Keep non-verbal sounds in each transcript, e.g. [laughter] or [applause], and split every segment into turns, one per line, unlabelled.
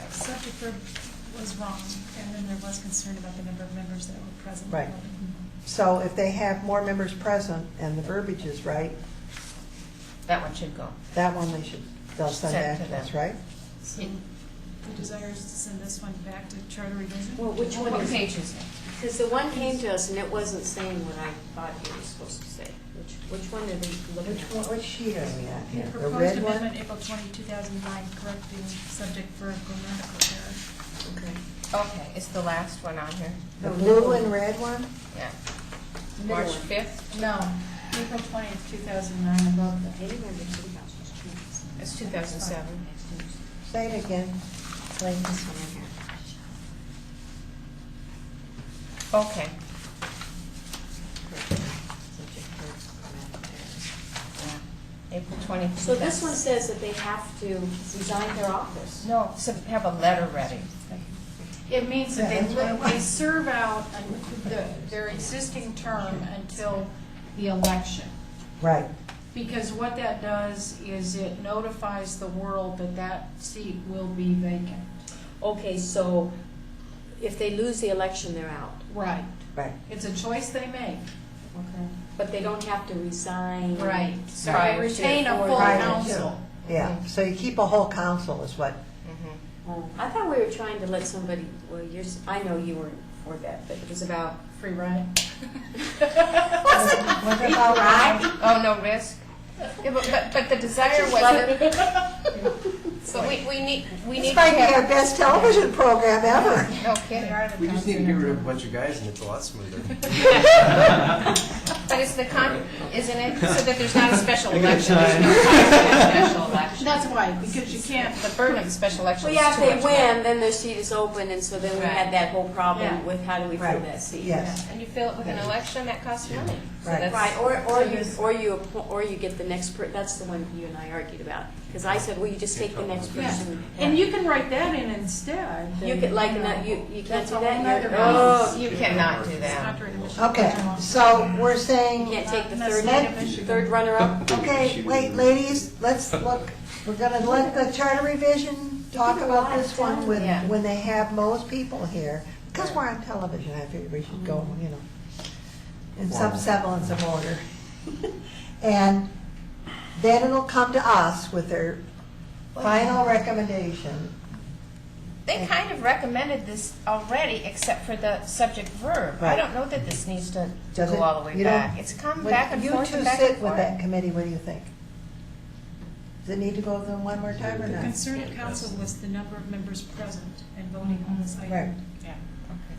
Dr. Ferb was wrong, and then there was concern about the number of members that were present.
Right. So if they have more members present and the verbiage is right,
That one should go.
that one they should, they'll send
Send
back
to
to us,
them.
right?
So the desire is to send this one back to charter revision?
Well, which one
What
is
page is it?
Because the one came to us and it wasn't saying what I thought it was supposed to say. Which, which one did we look
Which one,
at?
which sheet are we at
The
here? The
proposed
red one?
amendment, April 20, 2009, correcting subject for grammatical error.
Okay.
Okay, it's the last one on here,
The
The
blue
blue
and
one.
red one?
yeah.
Middle
March
one.
5th,
No, April twentieth, two thousand nine, above the,
I didn't remember two thousand.
it's 2007.
Say it again.
Like this one in here.
Okay,
Subject verb, grammatical errors.
April 22nd.
So this one says that they have to resign their office.
No, so have a letter ready.
it means that they,
That's what I
li-
want.
they serve out an- the- their existing term until the election.
Right.
Because what that does is it notifies the world that that seat will be vacant.
Okay, so if they lose the election, they're out.
Right.
Right.
It's a choice they make.
Okay. But they don't have to resign.
So
Prior
they
to-
retain a full
Prior
to.
council.
Yeah, so you keep a whole council is what,
Mhm.
Oh, I thought we were trying to let somebody, well, you're, s- I know you weren't for that, but it was about.
Free ride.
What about-
Mm-hmm. [laughs]
Oh, no risk? Yeah, but, but- but the desire was,
[laughs]
that- but we, we need, we need
this
to
might be our
have,
best television program ever.
no
They
kidding.
are the
We just need to get
council.
rid of a bunch of guys and it's a lot smoother.
But it's the con, isn't it, so that there's not a special election? There's no cost to a special election.
That's why, because you can't
The burden of a special election
Well,
is
yeah, if
too
they
much. work.
win, then their seat is open, and so then we
Right.
had that whole
Yeah.
problem with how do we fill
Right.
that seat?
Yes,
And you fill it with an election, that costs money. So
Right.
that's-
Right, or, or you, or you, appo- or you get the next per, that's the one you and I argued about, because I said, well, you just take the next
Yeah,
person.
and you can write that in instead.
You
that,
could, like,
know,
not- you, you can't
That's
do
a whole
that,
nother
you're, oh,
beast.
You cannot do that.
Contrary to Michigan
okay,
law.
so we're
oh, you
saying,
can't take the
That's
third,
made in Michigan.
third runner-up?
okay, wait, ladies, let's look, we're gonna let the charter revision talk about this one when,
Yeah.
when they have most people here. Because we're on television, I figured we should go,
Mm-hmm.
you know, in some
Wow.
semblance of order. [laughs] And then it'll come to us with their final recommendation.
They kind of recommended this already, except for the subject verb. I
Right.
don't know that this needs to
Does it-
go all the way
you don't-
back. It's come
When
back and forth and back
You
and
two sit with
forth.
that committee, what do you think? Does it need to go through one more time or
The
not?
concern of council was the number of members present and voting on this item.
Right.
Yeah.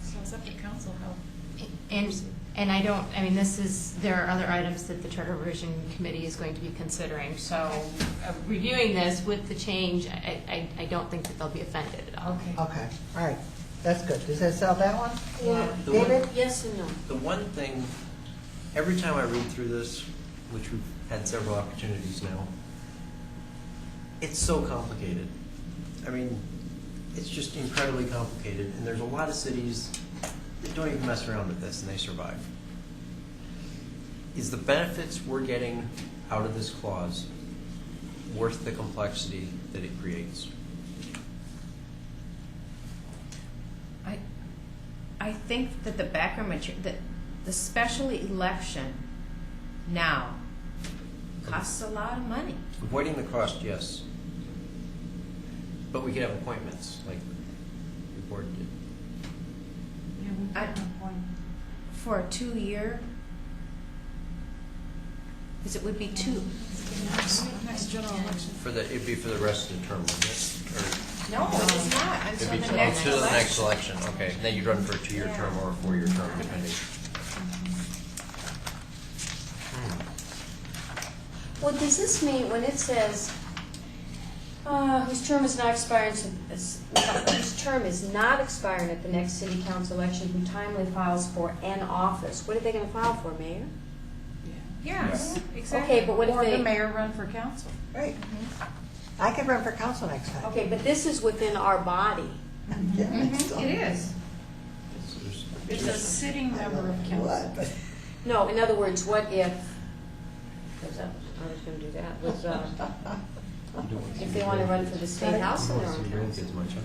So it's up to council how
And, and I don't, I mean, this is, there are other items that the Charter Revision Committee is going to be considering, so uh, reviewing this with the change, I, I, I don't think that they'll be offended at all.
Okay.
Okay, all right, that's good. Does that sell that one?
Yeah.
The one-
David?
Yes and no?
[laughs] The one thing, every time I read through this, which we've had several opportunities now, it's so complicated. I mean, it's just incredibly complicated, and there's a lot of cities that don't even mess around with this, and they survive. Is the benefits we're getting out of this clause worth the complexity that it creates?
I, I think that the background material, that the special election now costs a lot of money.
Avoiding the cost, yes. But we could have appointments, like the board did.
Yeah, we've got no point.
For a two-year, because it would be two.
next next general election.
For the, it'd be for the rest of the term, wouldn't it?
No, it is not
Or it'd
until
be
the next
until the next
election.
election, okay. Then you'd run for a two-year term or a four-year term, depending.
Well, does this mean, when it says, uh, whose term is not expiring, to- is- whose term is not expiring at the next city council election, who timely files for an office, what are they gonna file for, mayor?
Yes, exactly.
Okay, but what if
Or the
they,
mayor run for council.
Right. I could run for council next time.
okay, but this is within our body.
Yeah,
Mhm,
[laughs] so-
It is.
It's- there's-
It's a sitting
I don't
member of
know
council.
what, [laughs] but-
No, in other words, what if, was that- I was
[laughs]
gonna do that, was, uh, if they wanna run for the state house
I
and
don't
they're
wanna see
on
your
council.
kids much, huh?